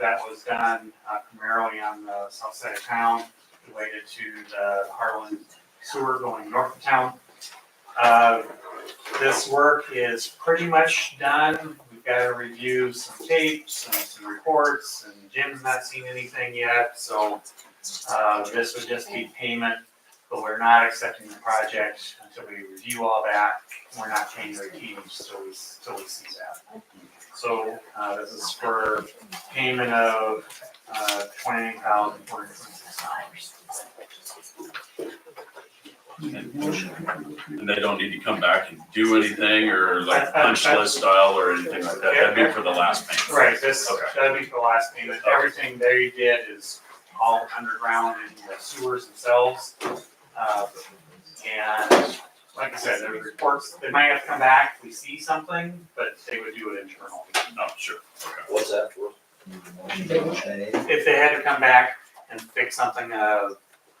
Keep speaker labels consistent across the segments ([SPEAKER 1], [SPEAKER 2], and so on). [SPEAKER 1] that was done uh, primarily on the south side of town related to the Harlan sewer going north of town. Uh, This work is pretty much done. We've got to review some tapes and some reports and Jim's not seen anything yet, so uh, this would just be payment, but we're not accepting the project until we review all that. We're not paying the fees till we, till we see that. So uh, this is for payment of uh, twenty-nine thousand four hundred twenty-six dollars.
[SPEAKER 2] And they don't need to come back and do anything or like punch list style or anything like that. That'd be for the last payment.
[SPEAKER 1] Right, this,
[SPEAKER 2] Okay.
[SPEAKER 1] that'd be for the last payment. Everything they did is all underground in the sewers themselves. Uh, And like I said, there were reports, they might have to come back, if we see something, but they would do it internally.
[SPEAKER 2] No, Oh, sure.
[SPEAKER 3] What's that for?
[SPEAKER 1] If they had to come back and fix something, uh,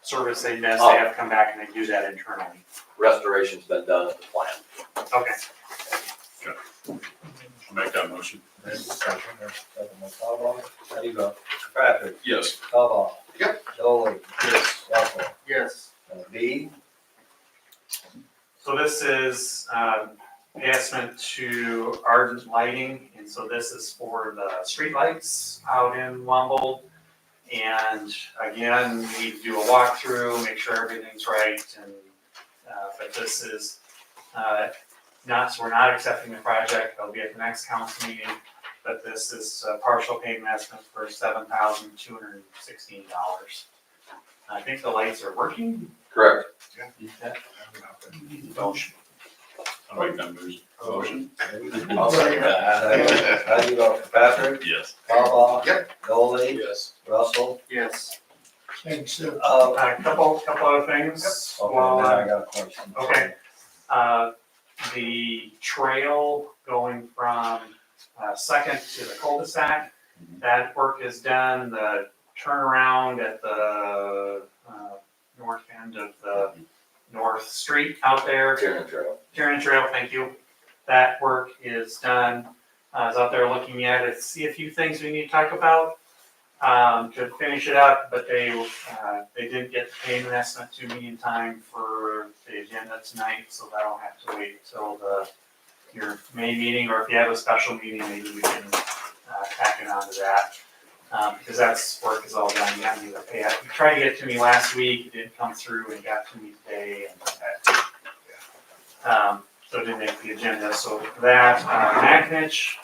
[SPEAKER 1] service they missed, they have to come back and they do that internally.
[SPEAKER 3] Restoration's been done at the plant.
[SPEAKER 1] Okay,
[SPEAKER 2] I'll Make that motion.
[SPEAKER 4] Hugo. Patrick.
[SPEAKER 2] Yes.
[SPEAKER 4] Cobal.
[SPEAKER 5] Yep.
[SPEAKER 4] Dolly. Yes. Russell.
[SPEAKER 5] Yes.
[SPEAKER 4] Uh, B.
[SPEAKER 1] so this is, um, the estimate to Ardent Lighting, and so this is for the streetlights out in Wumble. And again, we do a walkthrough, make sure everything's right, and, uh, but this is, uh, not, so we're not accepting the project, it'll be at the next council meeting. But this is a partial payment estimate for seven thousand two hundred and sixteen dollars. I think the lights are working,
[SPEAKER 3] Correct.
[SPEAKER 2] Motion. I'll make that motion. Motion.
[SPEAKER 4] I'll second that. Uh, Hugo. Patrick.
[SPEAKER 2] Yes.
[SPEAKER 4] Cobal.
[SPEAKER 5] Yep.
[SPEAKER 4] Dolly.
[SPEAKER 3] Yes.
[SPEAKER 4] Russell.
[SPEAKER 5] Yes.
[SPEAKER 4] Uh,
[SPEAKER 1] a couple, couple of things.
[SPEAKER 4] okay,
[SPEAKER 1] while
[SPEAKER 4] now
[SPEAKER 1] I'm-
[SPEAKER 4] I got a question.
[SPEAKER 1] Okay. Uh, the trail going from uh, Second to the cul-de-sac. That work is done, the turnaround at the uh, north end of the North Street out there.
[SPEAKER 3] Karen Trail.
[SPEAKER 1] Tierney Trail, thank you. That work is done. I was out there looking at it, see a few things we need to talk about um, to finish it up, but they, uh, they didn't get the payment estimate to me in time for the agenda tonight, so that'll have to wait till the, your May meeting, or if you have a special meeting, maybe we can uh, tack it on to that. Um, Because that's, work is all done, you have to do the pay. You tried to get it to me last week, it didn't come through, and got to me today, and that um, so it didn't make the agenda, so that, uh, Magnich.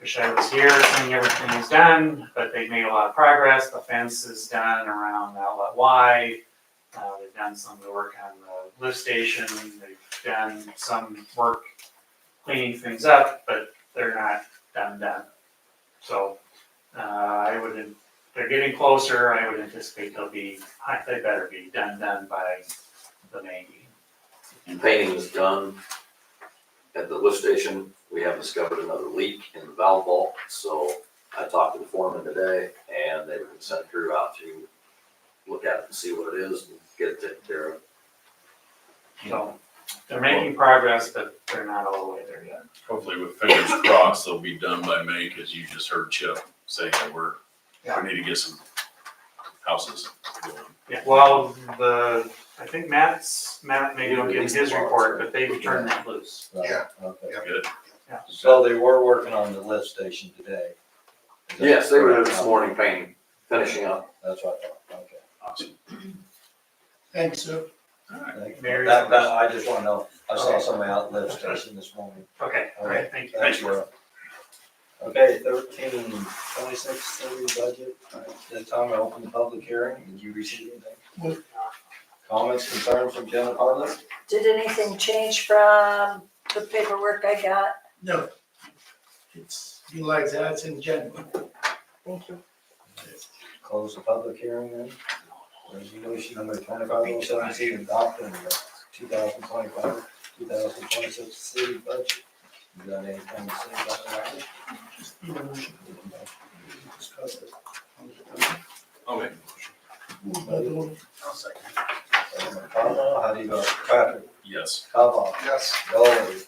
[SPEAKER 1] Wish I was here, seeing everything is done, but they've made a lot of progress, the fence is done around outlet Y. Uh, they've done some of the work on the lift station, they've done some work cleaning things up, but they're not done done. So, uh, I would, they're getting closer, I would anticipate they'll be, they better be done done by the May meeting.
[SPEAKER 3] Painting is done. At the lift station, we have discovered another leak in the valve vault, so I talked to the foreman today and they would send a crew out to look at it and see what it is and get it taken care of.
[SPEAKER 1] So they're making progress, but they're not all the way there yet.
[SPEAKER 2] Hopefully with fingers crossed, they'll be done by May because you just heard Chip say that we're,
[SPEAKER 1] Yeah.
[SPEAKER 2] we need to get some houses going.
[SPEAKER 1] Yeah, well, the, I think Matt's, Matt maybe don't get his report, but they turned that loose.
[SPEAKER 4] Right,
[SPEAKER 5] Yeah.
[SPEAKER 4] okay.
[SPEAKER 5] Yep.
[SPEAKER 2] Good.
[SPEAKER 1] Yeah.
[SPEAKER 4] So they were working on the lift station today. Is that
[SPEAKER 3] Yes, they were there
[SPEAKER 4] correct?
[SPEAKER 3] this morning painting, finishing up.
[SPEAKER 4] That's what I thought, okay.
[SPEAKER 2] Awesome.
[SPEAKER 6] Thanks, sir.
[SPEAKER 4] Thank you.
[SPEAKER 1] Mary's-
[SPEAKER 4] That, that, I just wanna know, I saw
[SPEAKER 1] Okay.
[SPEAKER 4] somebody out at lift station this morning.
[SPEAKER 1] Okay, all right, thank you.
[SPEAKER 2] Thank you.
[SPEAKER 4] Laura. Okay, thirteen, twenty-six, thirty budget, All right, this time I open the public hearing, did you receive anything? Comments, concerns from general public?
[SPEAKER 7] Did anything change from the paperwork I got?
[SPEAKER 6] No. It's been like that in January.
[SPEAKER 7] Thank you.
[SPEAKER 4] Close the public hearing then. Resolution number twenty-five oh seventeen, adopting the two thousand twenty-five, two thousand twenty-six city budget. You got anything to say about that?
[SPEAKER 6] You know, we discussed it.
[SPEAKER 2] Okay.
[SPEAKER 6] But all-
[SPEAKER 4] Uh, How do you vote? Patrick,
[SPEAKER 2] Yes.
[SPEAKER 4] Kavah,
[SPEAKER 5] Yes.
[SPEAKER 4] Dolly,